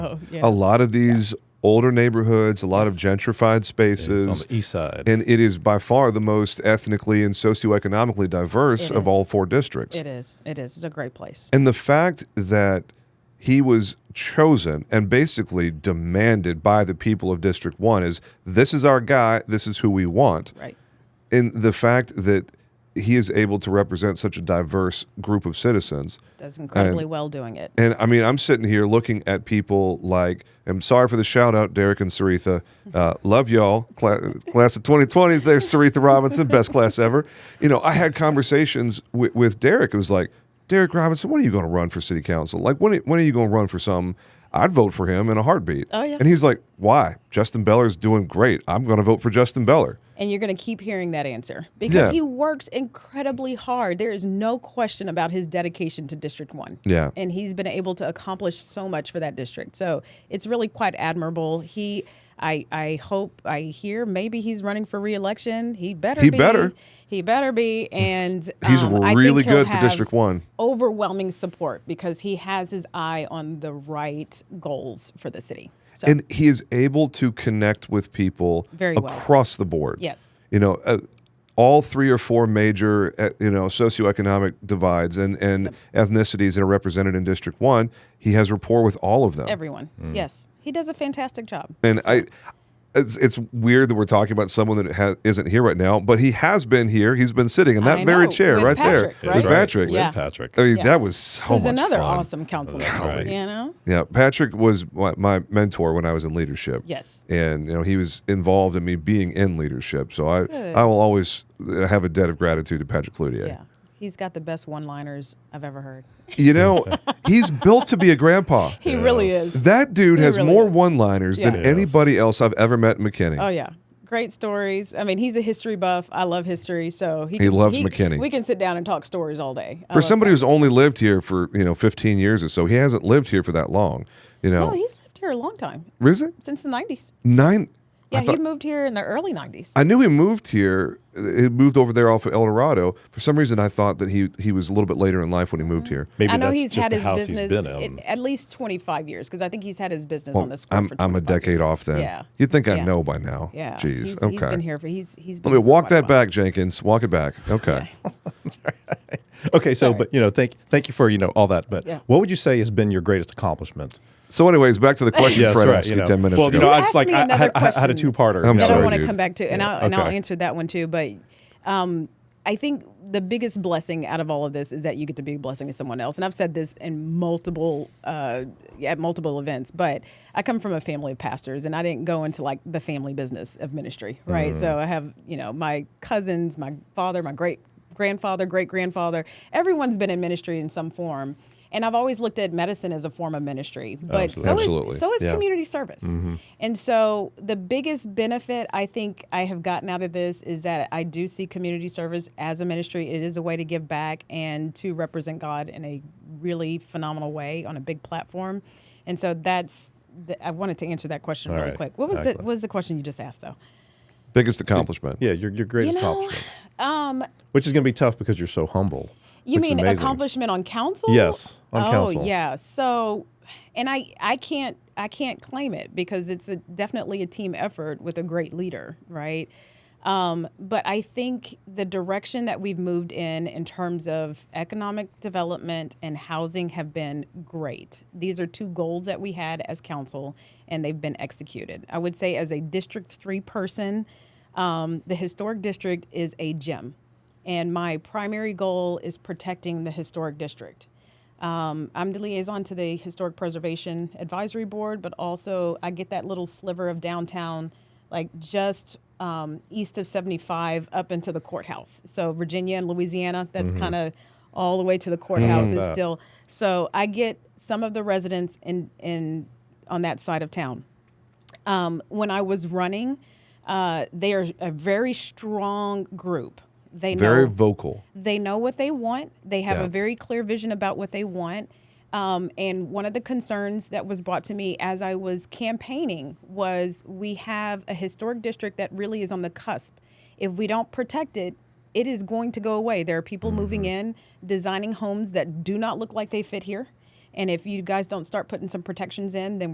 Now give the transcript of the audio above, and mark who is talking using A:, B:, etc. A: Oh, yeah.
B: a lot of these older neighborhoods, a lot of gentrified
C: It's on
B: spaces,
C: the east side.
B: and it is by far the most ethnically and socioeconomically diverse
A: It
B: of
A: is.
B: all four districts.
A: It is. It is. It's a great place.
B: And the fact that he was chosen and basically demanded by the people of District 1 is this is our guy, this is who we want.
A: Right.
B: And the fact that he is able to represent such a diverse group of citizens.
A: Does incredibly well doing it.
B: And I mean, I'm sitting here looking at people like, I'm sorry for the shout out, Derek and Saritha. Uh, love y'all. Cla- class of 2020, there's Saritha Robinson, best class ever. You know, I had conversations with, with Derek. It was like, Derek Robinson, when are you going to run for city council? Like, when, when are you going to run for something? I'd vote for him in a heartbeat.
A: Oh, yeah.
B: And he's like, why? Justin Beller's doing great. I'm going to vote for Justin Beller.
A: And you're going to keep hearing that answer because
B: Yeah.
A: he works incredibly hard. There is no question about his dedication to District 1.
B: Yeah.
A: And he's been able to accomplish so much for that district. So it's really quite admirable. He. I, I hope I hear maybe he's running for reelection. He better
B: He
A: be.
B: better.
A: He better be. And
B: He's
A: um, I think
B: really
A: he'll
B: good for
A: have
B: District 1.
A: Overwhelming support because he has his eye on the right goals for the city. So
B: and he is able to connect with people
A: Very well.
B: across the board.
A: Yes.
B: you know, uh, all three or four major uh, you know socioeconomic divides and and ethnicities that are represented in District One. He has rapport with all of them.
A: everyone. Yes. He does a fantastic job.
B: and I. It's, it's weird that we're talking about someone that ha- isn't here right now, but he has been here. He's been sitting in that
A: I
B: very
A: know,
B: chair
A: with
B: right
A: Patrick,
B: there
A: right?
B: with
A: That's right.
B: Patrick.
A: Yeah.
C: With Patrick.
B: I mean,
A: Yeah.
B: that was so
A: Who's
B: much
A: another
B: fun.
A: awesome councilman.
C: Golly.
A: You know?
B: Yeah, Patrick was my, my mentor when I was in leadership.
A: Yes.
B: and you know he was involved in me being in leadership. So I
A: Good.
B: I will always uh, have a debt of gratitude to Patrick Cloutier.
A: Yeah. He's got the best one liners I've ever heard.
B: You know, he's built to be a grandpa.
A: He really
C: Yes.
A: is.
B: That dude
A: He
B: has
A: really
B: more
A: is.
B: one-liners than
A: Yeah.
C: Yes.
B: anybody else I've ever met in McKinney.
A: Oh yeah. Great stories. I mean, he's a history buff. I love history, so he,
B: He loves McKinney.
A: We can sit down and talk stories all day. I
B: For
A: love
B: somebody
A: that.
B: who's only lived here for you know 15 years or so, he hasn't lived here for that long. You know,
A: No, Oh, he's lived here a long time.
B: is it
A: Since the 90s.
B: nine? I
A: Yeah,
B: thought-
A: he moved here in the early 90s.
B: I knew he moved here. He moved over there off of El Dorado. For some reason, I thought that he he was a little bit later in life when he moved here.
C: Maybe
A: I know
C: that's
A: he's
C: just
A: had
C: the
A: his
C: house
A: business
C: he's been in.
A: at- at least 25 years because I think he's had his business on this.
B: I'm,
A: for
B: I'm a
A: 25
B: decade
A: years.
B: off then.
A: Yeah.
B: You'd think I
A: Yeah.
B: know by now.
A: Yeah.
B: Jeez.
A: He's-
B: okay.
A: He's been here for he's he's. Been
B: Let me
A: here
B: walk
A: quite a
B: that
A: while.
B: back, Jenkins. Walk it back. Okay.
C: Okay, so
A: Sorry.
C: but you know, thank thank you for you know all that. But
A: Yeah.
C: what would you say has been your greatest accomplishment?
B: so, anyways, back to the question
C: Yes,
B: Fred
C: right,
B: asked
C: you
B: you
C: know.
B: ten minutes
C: well,
B: ago.
C: you know, I
A: Ask
C: just like
A: me
C: I
A: another
C: had, I had- I had a
A: question.
C: two parter.
B: I'm
A: that I
B: sorry,
A: want to
B: dude.
A: come back to, and, I'll, and I'll
C: okay.
A: answer that one too. But um, I think the biggest blessing out of all of this is that you get to be a blessing to someone else. And I've said this in multiple uh, at multiple events, but I come from a family of pastors, and I didn't go into like the family business of ministry, right?
B: Mm-hmm.
A: So I have you know my cousins, my father, my great grandfather, great grandfather, everyone's been in ministry in some form. And I've always looked at medicine as a form of ministry, but so
B: Absolutely.
A: is, so is
C: Yeah.
A: community community service.
C: Mm-hmm.
A: And so the biggest benefit I think I have gotten out of this is that I do see community service as a ministry. It is a way to give back and to represent God in a really phenomenal way on a big platform. And so that's the, I wanted to answer that question
C: All
A: really
C: right.
A: quick. What was the,
C: Excellent.
A: what was the question you just asked though?
B: Biggest accomplishment.
C: Yeah, your your greatest
A: You know, um,
C: accomplishment. Which is going to be tough because you're so humble.
A: You
C: which is
A: mean
C: amazing.
A: accomplishment on council?
C: Yes, on
A: oh,
C: council.
A: yeah. So, and I I can't I can't claim it because it's a, definitely a team effort with a great leader, right? Um, but I think the direction that we've moved in in terms of economic development and housing have been great. These are two goals that we had as council, and they've been executed. I would say as a District Three person, um, the historic district is a gem and my primary goal is protecting the historic district. Um, I'm the liaison to the Historic Preservation Advisory Board, but also I get that little sliver of downtown, like just um, east of 75 up into the courthouse. So, Virginia and Louisiana, that's kind of all the way to the courthouse is still. So, I get some of the residents in, in, on that side of town um, when I was running, uh, they are a very strong group. They
B: Very
A: know
B: vocal.
A: they know what they want. They have
B: Yeah.
A: a very clear vision about what they want. Um, and one of the concerns that was brought to me as I was campaigning was we have a historic district that really is on the cusp. If we don't protect it, it is going to go away. There are people moving in, designing homes that do not look like they fit here. And if you guys don't start putting some protections in, then